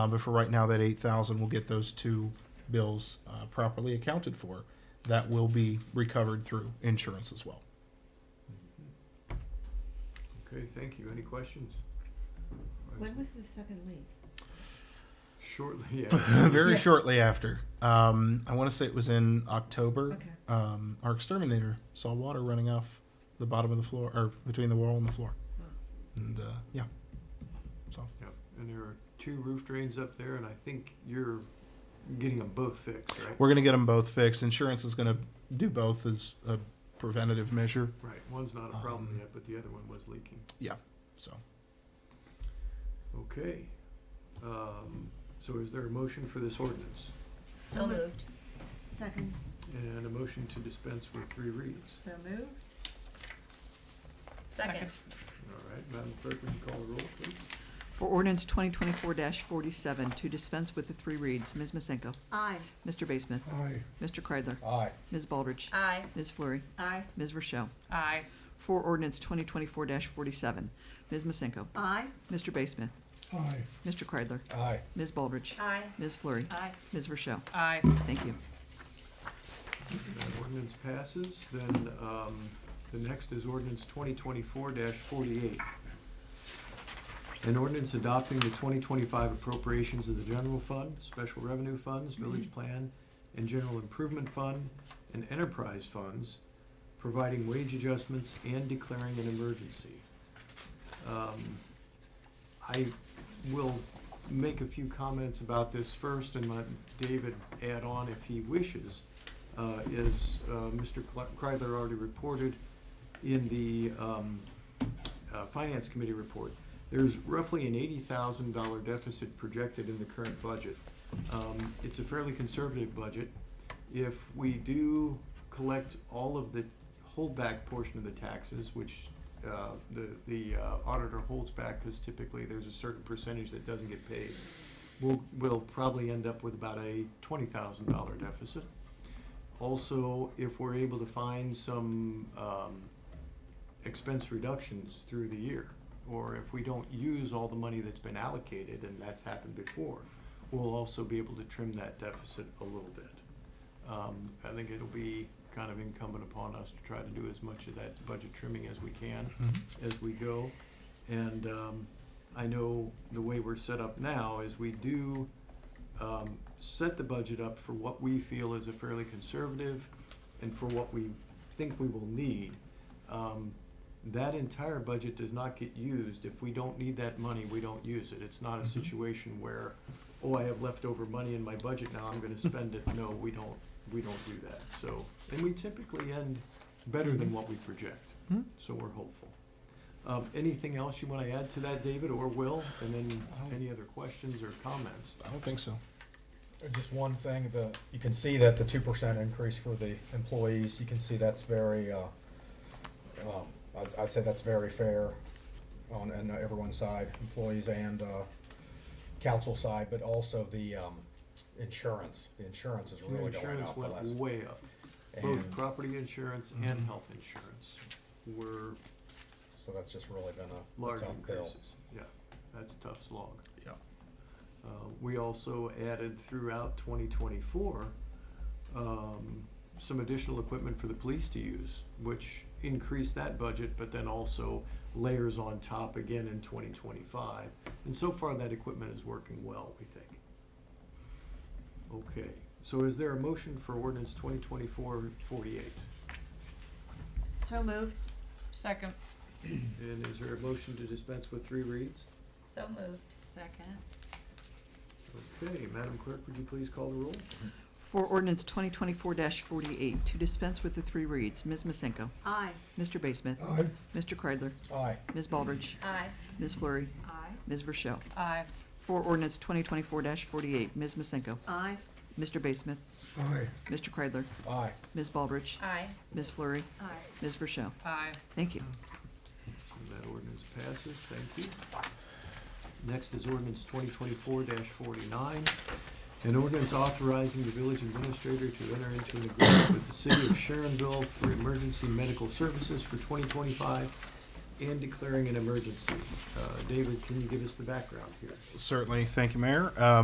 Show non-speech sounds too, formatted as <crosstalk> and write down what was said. Um, but for right now, that eight thousand will get those two bills uh, properly accounted for. That will be recovered through insurance as well. <laughs> Okay, thank you. Any questions? When was the second leak? Shortly, <laughs> yeah. Very Yeah. shortly after, um, I want to say it was in October. Okay. Um, our exterminator saw water running off the bottom of the floor, or between the wall and the floor, Huh. and uh, yeah. So Yep, and there are two roof drains up there, and I think you're getting them both fixed, right? we're gonna get them both fixed. Insurance is gonna do both as a preventative measure. Right, one's not a problem Um, yet, but the other one was leaking. So Okay. Um, so is there a motion for this ordinance? So moved. Second, And a motion to dispense with three readings? so moved? Second. All right, Madam Clerk, would you call the roll, please? For ordinance twenty twenty-four forty-seven, to dispense with the three reads, Ms. Masenko, Aye. Mr. Basemuth, Aye. Mr. Kreidler, aye, Ms. Baldridge, Aye. Ms. Fleury, Aye. Ms. Rochelle. Aye. For ordinance twenty twenty-four forty-seven, Ms. Masenko, Aye. Mr. Basemuth, Aye. Mr. Kreidler, aye. Ms. Baldridge, Aye. Ms. Fleury, Aye. Ms. Rochelle. Aye. Thank you. That ordinance passes, then, um, the next is ordinance twenty twenty-four forty-eight. An ordinance adopting the twenty twenty-five appropriations of the general fund, special revenue funds, village plan, and general improvement fund, and enterprise funds, providing wage adjustments and declaring an emergency. Um, I will make a few comments about this first and let David add on if he wishes uh, is, uh, Mr. Cl- Kreidler already reported in the um, uh, Finance Committee report. There's roughly an eighty thousand dollar deficit projected in the current budget. Um, It's a fairly conservative budget. If we do collect all of the holdback portion of the taxes, which uh, the the uh, auditor holds back because typically there's a certain percentage that doesn't get paid, we'll, we'll probably end up with about a twenty thousand dollar deficit. Also, if we're able to find some um, expense reductions through the year, or if we don't use all the money that's been allocated, and that's happened before, we'll also be able to trim that deficit a little bit. Um, I think it'll be kind of incumbent upon us to try to do as much of that budget trimming as we can as we go. And um, I know the way we're set up now is we do um, set the budget up for what we feel is a fairly conservative and for what we think we will need. Um, That entire budget does not get used. If we don't need that money, we don't use it. It's not a Mhm. situation where, oh, I have leftover money in my budget now, I'm gonna spend it. No, we don't, we don't do that. So, and we typically end better than what we project, Mhm. so we're hopeful. Um, Anything else you wanna add to that, David or Will? And then any other questions or comments? I don't think so. Just one thing, the, you can see that the two percent increase for the employees, you can see that's very, uh, um, I'd, I'd say that's very fair on, on everyone's side, employees and, uh, council side, but also the, um, insurance, the insurance is Your really going up the Insurance last. went way up, both And property insurance and Mhm. health insurance were so that's just really been a- a large tough bill. increases. Yeah, that's a tough slog. Yeah. Uh, we also added throughout twenty twenty-four, um, some additional equipment for the police to use, which increased that budget, but then also layers on top again in twenty twenty-five. And so far, that equipment is working well, we think. Okay, so is there a motion for ordinance 2024-48? So moved? Second. And is there a motion to dispense with three reads? So moved. Second. Okay, Madam Clerk, would you please call the roll? For ordinance twenty twenty-four forty-eight, to dispense with the three reads, Ms. Masenko, Aye. Mr. Basemuth, Mr. Kreidler, Aye, Ms. Baldridge, Aye. Ms. Fleury, Aye. Ms. Rochelle. Aye. For ordinance twenty twenty-four forty-eight, Ms. Masenko, Aye. Mr. Basemuth. Mr. Kreidler, aye, Ms. Baldridge, Aye. Ms. Fleury, Aye. Ms. Rochelle. Aye. Thank you. And that ordinance passes, thank you. Next is ordinance twenty twenty-four forty-nine. An ordinance authorizing the village administrator to enter into an agreement with the city of Sharonville for emergency medical services for twenty twenty-five and declaring an emergency. Uh, David, can you give us the background here? Certainly, thank you, Mayor. Um,